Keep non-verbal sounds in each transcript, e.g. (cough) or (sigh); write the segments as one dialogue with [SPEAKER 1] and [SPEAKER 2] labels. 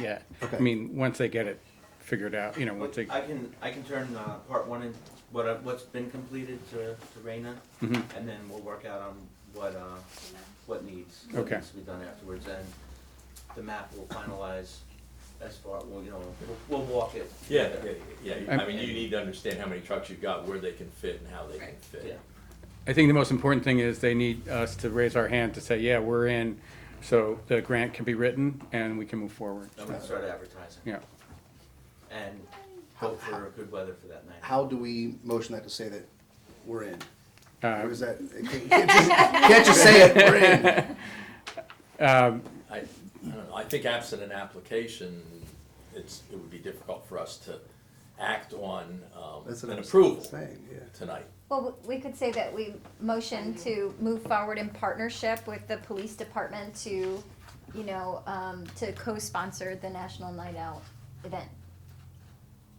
[SPEAKER 1] yet. I
[SPEAKER 2] Okay.
[SPEAKER 1] mean, once they get it figured out, you know, once they,
[SPEAKER 3] I can, I can turn, uh, part one and what, I- what's been completed to, to Raina,
[SPEAKER 1] Mhm.
[SPEAKER 3] and then we'll work out on what, uh, what needs. what
[SPEAKER 1] Okay.
[SPEAKER 3] Needs to be done afterwards, and the map will finalize as far, well, you know, we'll, we'll walk it.
[SPEAKER 4] Yeah, yeah, yeah, I
[SPEAKER 1] I'm-
[SPEAKER 4] mean, you need to understand how many trucks you've got, where they can fit and how they can
[SPEAKER 5] Right.
[SPEAKER 3] Yeah,
[SPEAKER 4] fit.
[SPEAKER 1] I think the most important thing is they need us to raise our hand to say, yeah, we're in, so the grant can be written and we can move forward.
[SPEAKER 3] I'm gonna start advertising.
[SPEAKER 1] Yeah.
[SPEAKER 3] And hope for good weather for that night.
[SPEAKER 2] How do we motion that to say that we're in? Or
[SPEAKER 1] Uh,
[SPEAKER 2] is that, you can't just, can't just say it, we're in.
[SPEAKER 4] I, I don't know, I think absent an application, it's, it would be difficult for us to act on, um,
[SPEAKER 2] That's what
[SPEAKER 4] an
[SPEAKER 2] I'm
[SPEAKER 4] approval
[SPEAKER 2] (laughs) saying, yeah.
[SPEAKER 4] tonight.
[SPEAKER 6] Well, we we could say that we motion to move forward in partnership with the police department to, you know, um, to co-sponsor the National Night Out event.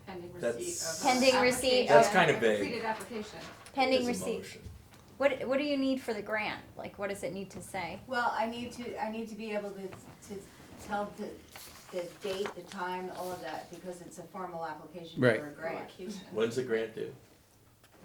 [SPEAKER 5] Pending receipt of.
[SPEAKER 4] That's-
[SPEAKER 6] Pending
[SPEAKER 5] application.
[SPEAKER 6] receipt That's
[SPEAKER 4] kinda vague.
[SPEAKER 5] Completed application.
[SPEAKER 6] Pending
[SPEAKER 4] As a
[SPEAKER 6] receipt.
[SPEAKER 4] motion.
[SPEAKER 6] What, what do you need for the grant? Like, what does it need to say?
[SPEAKER 7] Well, I need to, I need to be able to, to tell the, the date, the time, all of that, because it's a formal application for
[SPEAKER 1] Right.
[SPEAKER 7] a grant.
[SPEAKER 4] When's the grant due?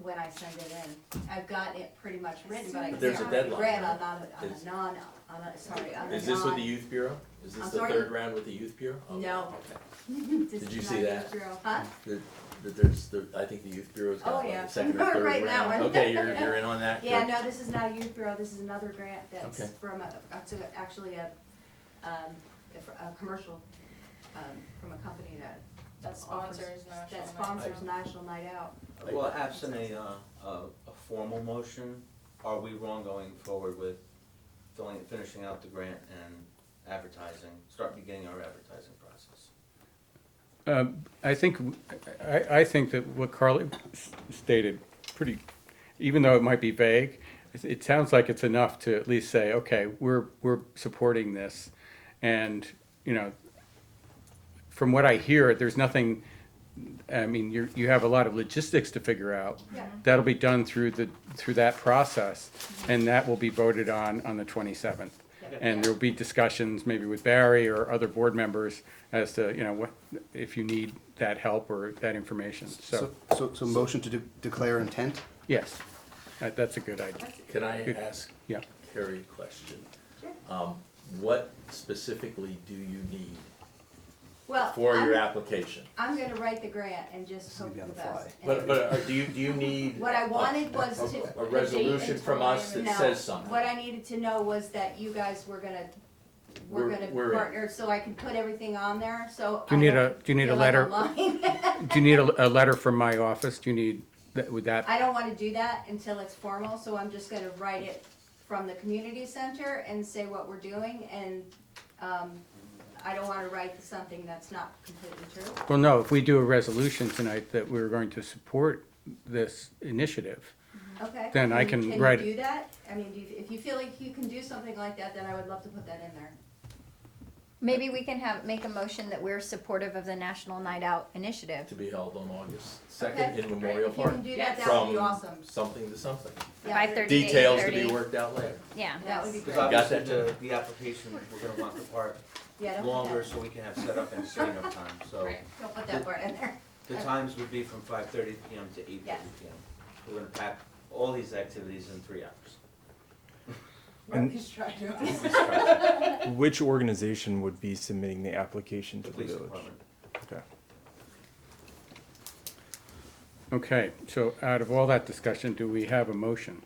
[SPEAKER 7] When I send it in, I've got it pretty much written, but I
[SPEAKER 4] But there's a
[SPEAKER 7] can't
[SPEAKER 4] deadline,
[SPEAKER 7] grant
[SPEAKER 4] right?
[SPEAKER 7] on, on a, on
[SPEAKER 4] Is-
[SPEAKER 7] a non, on a, sorry, on a non.
[SPEAKER 4] Is this with the youth bureau? Is this
[SPEAKER 7] I'm
[SPEAKER 4] the
[SPEAKER 7] sorry?
[SPEAKER 4] third round with the youth bureau? Okay,
[SPEAKER 7] No.
[SPEAKER 4] okay.
[SPEAKER 7] (laughs)
[SPEAKER 4] Did
[SPEAKER 7] this is
[SPEAKER 4] you
[SPEAKER 7] not
[SPEAKER 4] see that?
[SPEAKER 7] Israel, Huh?
[SPEAKER 4] That, that there's, the- I think the youth bureau's
[SPEAKER 7] Oh,
[SPEAKER 4] got like
[SPEAKER 7] yeah.
[SPEAKER 4] the second or third
[SPEAKER 7] (laughs) Right, that
[SPEAKER 4] round.
[SPEAKER 7] one.
[SPEAKER 4] Okay, you're, you're in on that?
[SPEAKER 7] Yeah,
[SPEAKER 4] Good.
[SPEAKER 7] no, this is not a youth bureau, this is another grant
[SPEAKER 4] Okay.
[SPEAKER 7] that's from a, that's a- actually a, um, a, fr- a commercial, um, from a company that.
[SPEAKER 5] That
[SPEAKER 7] offers-
[SPEAKER 5] sponsors National Night
[SPEAKER 7] That
[SPEAKER 5] Out.
[SPEAKER 7] sponsors National Night Out.
[SPEAKER 3] Well, absent a, uh, a, a formal motion, are we wrong going forward with filling, finishing out the grant and advertising, start beginning our advertising process?
[SPEAKER 1] Um, I think, I, I think that what Carly s- stated, pretty, even though it might be vague, it, it sounds like it's enough to at least say, okay, we're, we're supporting this. And, you know, from what I hear, there's nothing, I mean, you, you have a lot of logistics to figure out.
[SPEAKER 7] Yeah.
[SPEAKER 1] That'll be done through the, through that process, and that will be voted on on the twenty-seventh. And there'll be discussions maybe with Barry or other board members as to, you know, what, if you need that help or that information, so,
[SPEAKER 2] So, so, so motion to de- declare intent?
[SPEAKER 1] yes. That, that's a good idea,
[SPEAKER 4] Can I ask
[SPEAKER 1] yeah.
[SPEAKER 4] Carrie a question? Um, what specifically do you need
[SPEAKER 7] Well,
[SPEAKER 4] for your
[SPEAKER 7] Uh, I'm,
[SPEAKER 4] application?
[SPEAKER 7] I'm gonna write the grant and just
[SPEAKER 2] This is
[SPEAKER 7] hope
[SPEAKER 2] gonna
[SPEAKER 7] for the
[SPEAKER 2] be on the
[SPEAKER 7] best.
[SPEAKER 2] fly.
[SPEAKER 4] But, uh, but are- do you, do you need?
[SPEAKER 7] What I
[SPEAKER 4] a-
[SPEAKER 7] wanted was
[SPEAKER 4] a-
[SPEAKER 7] to- the
[SPEAKER 4] A
[SPEAKER 7] date
[SPEAKER 4] resolution
[SPEAKER 5] and
[SPEAKER 4] from us
[SPEAKER 5] time
[SPEAKER 4] that
[SPEAKER 7] No,
[SPEAKER 4] says something?
[SPEAKER 7] What I needed to know was that you guys were gonna, were
[SPEAKER 4] We're-
[SPEAKER 7] gonna
[SPEAKER 4] we're in.
[SPEAKER 7] partner, so I can put everything on there, so.
[SPEAKER 1] Do you
[SPEAKER 7] I
[SPEAKER 1] need
[SPEAKER 7] don't
[SPEAKER 1] a- do you need a
[SPEAKER 7] feel like I'm
[SPEAKER 1] letter?
[SPEAKER 7] lying.
[SPEAKER 1] Do you need a, a letter from my office, do you need, that- would that,
[SPEAKER 7] I don't wanna do that until it's formal, so I'm just gonna write it from the community center and say what we're doing, and, um, I don't wanna write something that's not completely true.
[SPEAKER 1] well, no, if we do a resolution tonight that we're going to support this initiative,
[SPEAKER 7] Okay.
[SPEAKER 1] Then I can write it.
[SPEAKER 7] you do that? I mean, do you- if you feel like you can do something like that, then I would love to put that in there.
[SPEAKER 6] Maybe we can have, make a motion that we're supportive of the National Night Out initiative.
[SPEAKER 4] To be held on August second in
[SPEAKER 7] Okay,
[SPEAKER 4] Memorial
[SPEAKER 7] If you
[SPEAKER 4] Park.
[SPEAKER 7] can do
[SPEAKER 5] Yes.
[SPEAKER 7] that, that would be
[SPEAKER 4] From
[SPEAKER 7] awesome.
[SPEAKER 4] something to something.
[SPEAKER 6] By
[SPEAKER 7] Yeah.
[SPEAKER 6] thirty to
[SPEAKER 4] Details to be
[SPEAKER 6] 8:30.
[SPEAKER 4] worked out later.
[SPEAKER 6] Yeah.
[SPEAKER 7] That would be
[SPEAKER 3] Because
[SPEAKER 7] great.
[SPEAKER 4] Got
[SPEAKER 3] obviously
[SPEAKER 4] that,
[SPEAKER 3] the, the application, we're gonna want the part
[SPEAKER 7] (laughs) Yeah, don't put
[SPEAKER 3] longer
[SPEAKER 7] that-
[SPEAKER 3] so we can have setup and setting up time, so.
[SPEAKER 5] Right.
[SPEAKER 7] Don't put that word in
[SPEAKER 1] (laughs)
[SPEAKER 7] there.
[SPEAKER 3] The times would be from five thirty PM to eight thirty
[SPEAKER 7] Yes.
[SPEAKER 3] PM. We're gonna pack all these activities in three hours.
[SPEAKER 7] Or just try (laughs) to.
[SPEAKER 8] Which organization would be submitting the application
[SPEAKER 3] The
[SPEAKER 8] to the
[SPEAKER 3] police
[SPEAKER 8] village?
[SPEAKER 3] department.
[SPEAKER 8] Okay.
[SPEAKER 1] okay, so out of all that discussion, do we have a motion?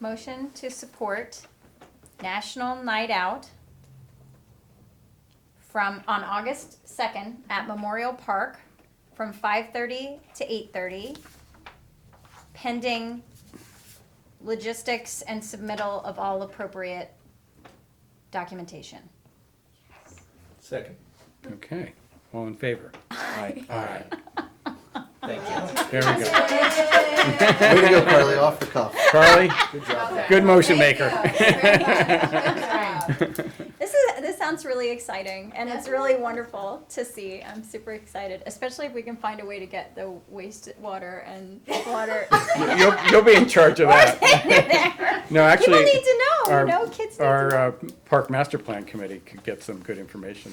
[SPEAKER 6] Motion to support National Night Out from, on August second at Memorial Park from five-thirty to eight-thirty, pending logistics and submittal of all appropriate documentation.
[SPEAKER 4] Second.
[SPEAKER 1] Okay, all in favor?
[SPEAKER 8] Aye.
[SPEAKER 1] Aye.
[SPEAKER 3] Thank you.
[SPEAKER 1] There we go.
[SPEAKER 2] Way to go, Carly, off the cuff.
[SPEAKER 1] Carly,
[SPEAKER 5] Okay.
[SPEAKER 1] (laughs) good motion maker.
[SPEAKER 6] This is, this sounds really exciting and it's really wonderful to see. I'm super excited, especially if we can find a way to get the wastewater (laughs) and water
[SPEAKER 1] You'll, you'll be in charge of that.
[SPEAKER 6] (laughs) there.
[SPEAKER 1] No, actually.
[SPEAKER 6] People need to know,
[SPEAKER 1] our-
[SPEAKER 6] you know, kids need to know.
[SPEAKER 1] Our uh, park master plan committee could get some good information